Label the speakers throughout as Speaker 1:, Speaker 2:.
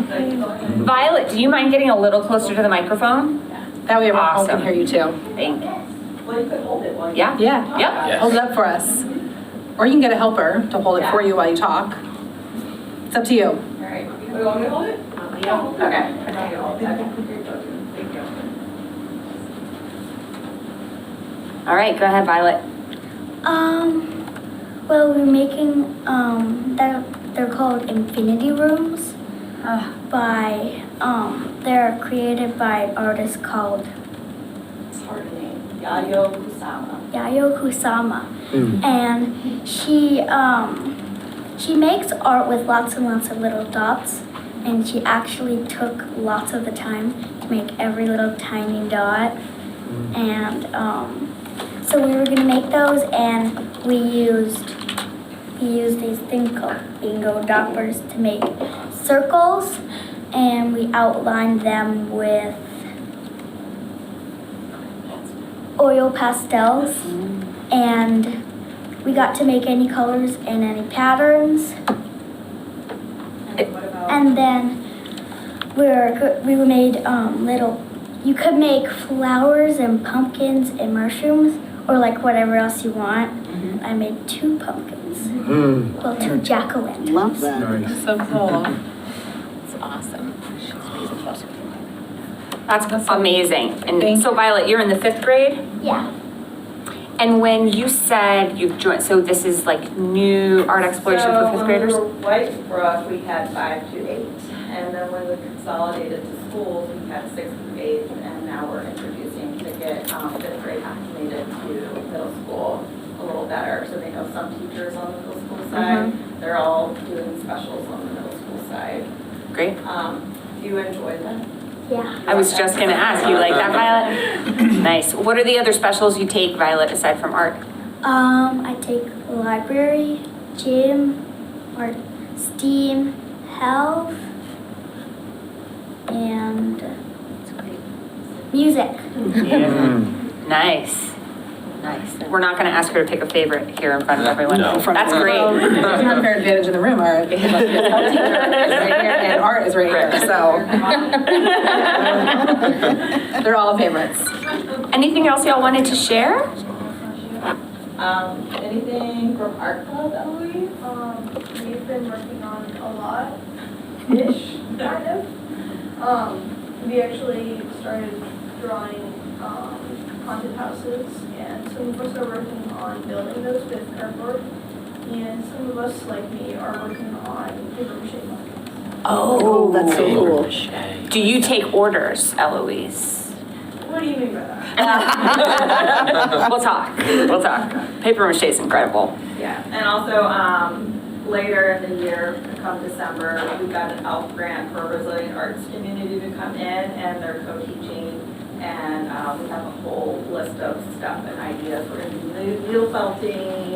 Speaker 1: Violet, do you mind getting a little closer to the microphone?
Speaker 2: That way everyone all oh, can
Speaker 1: Awesome.
Speaker 2: hear you too.
Speaker 1: Thank you.
Speaker 3: Well, you could hold it while you.
Speaker 1: Yeah?
Speaker 2: Yeah.
Speaker 1: Yep.
Speaker 2: Hold it up for us. Or you can get a helper to hold it for you while you talk. It's up to you.
Speaker 3: All right. You want me to hold it? Oh, Yeah. Okay.
Speaker 1: All right, go ahead, Violet.
Speaker 4: Um, well, we're making, um, they're, they're called Infinity Rooms by, um, they're created by an artist called
Speaker 3: It's hard to name. Yayo Kusama.
Speaker 4: Yayo Kusama. And she, um, she makes art with lots and lots of little dots. And she actually took lots of the time to make every little tiny dot. And um, so we were gonna make those, and we used we used these thing called bingo doppers to make circles, and we outlined them with oil pastels and we got to make any colors and any patterns.
Speaker 3: And what about?
Speaker 4: And then we were, we were made um, little, you could make flowers and pumpkins and mushrooms or like whatever else you want. I made two pumpkins,
Speaker 5: Mm-hmm.
Speaker 6: Mm,
Speaker 4: well, Mm-hmm. two jack o' lanterns.
Speaker 5: Love that.
Speaker 6: nice.
Speaker 2: So cool. It's awesome.
Speaker 1: That's amazing.
Speaker 2: Thank
Speaker 1: And so Violet, you're in the fifth grade?
Speaker 4: Yeah.
Speaker 1: And when you said you've joined, so this is like new art exploration for fifth graders?
Speaker 3: So when we were White Brook, we had five to eight, and then when we consolidated to schools, we had six to eight, and now we're introducing to get um, fifth grade acclimated to middle school a little better. So they know some teachers on the middle school
Speaker 1: Mm-hmm.
Speaker 3: side, they're all doing specials on the middle school side.
Speaker 1: Great.
Speaker 3: Um, Do you enjoy them?
Speaker 4: Yeah.
Speaker 1: I was just gonna ask, you like that, Violet? Nice. What are the other specials you take, Violet, aside from art?
Speaker 4: Um, I take library, gym, or STEAM, health, and music.
Speaker 5: Mm-hmm.
Speaker 6: Mm.
Speaker 1: Nice. Nice. We're not gonna ask her to pick a favorite here in front of everyone.
Speaker 2: In front of
Speaker 1: That's
Speaker 2: the room.
Speaker 1: great.
Speaker 2: It's an unfair advantage in the room, art. because like, it's all teacher is right here And art is right here, so. They're all favorites.
Speaker 1: Anything else y'all wanted to share?
Speaker 3: Um, Anything from art club, Eloise?
Speaker 7: Um, we've been working on a lot, ish, kind of. Um, we actually started drawing, um, haunted houses, and some of us are working on building those with cardboard. And some of us, like me, are working on paper mache buckets.
Speaker 5: Oh, that's so cool.
Speaker 1: Do you take orders, Eloise?
Speaker 7: What do you mean by that?
Speaker 1: We'll talk, we'll talk. Paper mache is incredible.
Speaker 3: Yeah, and also, um, later in the year, come December, we got an ELF grant for Resilient Arts Community to come in, and they're co-teaching, and, um, we have a whole list of stuff and ideas, we're gonna do needle felting,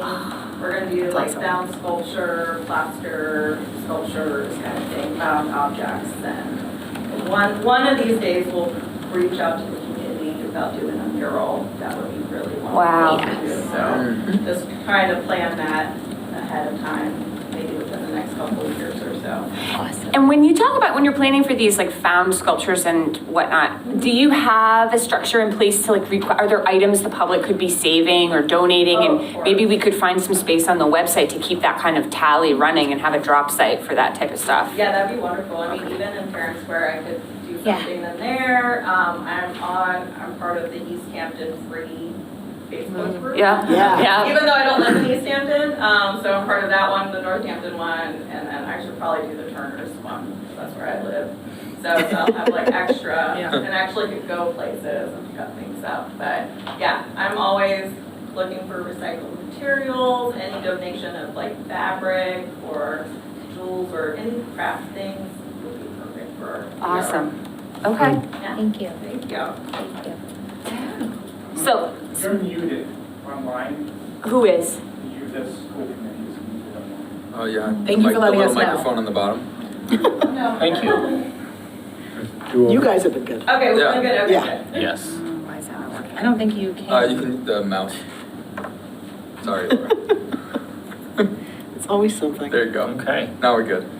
Speaker 3: we're gonna do like
Speaker 1: Awesome.
Speaker 3: down sculpture, plaster sculptures, kind of thing, found objects, and one, one of these days, we'll reach out to the community about doing a mural, that would be really wonderful.
Speaker 1: Wow.
Speaker 3: to do, So, just trying to plan that ahead of time, maybe within the next couple of years or so.
Speaker 1: And when you talk about when you're planning for these like found sculptures and whatnot, do you have a structure in place to like require, are there items the public could be saving or donating?
Speaker 3: Oh, of
Speaker 1: And
Speaker 3: course.
Speaker 1: maybe we could find some space on the website to keep that kind of tally running and have a drop site for that type of stuff.
Speaker 3: Yeah, that'd be wonderful. I mean, even in Parents Square, I could do something in there. Um, I'm on, I'm part of the East Hampton Free Facebook group.
Speaker 1: Mm, Yeah?
Speaker 5: Yeah.
Speaker 1: Yeah,
Speaker 3: Even though I don't live in East Hampton, um, so I'm part of that one, the Northampton one, and then I should probably do the Turner's one, 'cause that's where I live. So so I'll have like extra, and actually could go places and pick up things up, but yeah, I'm always looking for recycled materials, any donation of like fabric or jewels or any craft things would be perfect for.
Speaker 1: awesome. Okay,
Speaker 3: Thank you. Thank you.
Speaker 1: so
Speaker 8: You're muted online,
Speaker 1: who is?
Speaker 8: you, the school committee is muted online.
Speaker 6: Oh, yeah.
Speaker 2: Thank you
Speaker 6: Like
Speaker 2: for
Speaker 6: the
Speaker 2: letting
Speaker 6: little
Speaker 2: us know.
Speaker 6: Microphone on the bottom.
Speaker 3: Thank you.
Speaker 5: You guys have been good.
Speaker 3: Okay, we're doing good, okay,
Speaker 5: Yeah.
Speaker 3: good.
Speaker 9: Yes.
Speaker 2: I don't think you
Speaker 6: Uh, you can, the mouse. Sorry, Laura.
Speaker 5: It's always something.
Speaker 6: There you go.
Speaker 9: Okay.
Speaker 6: Now we're good.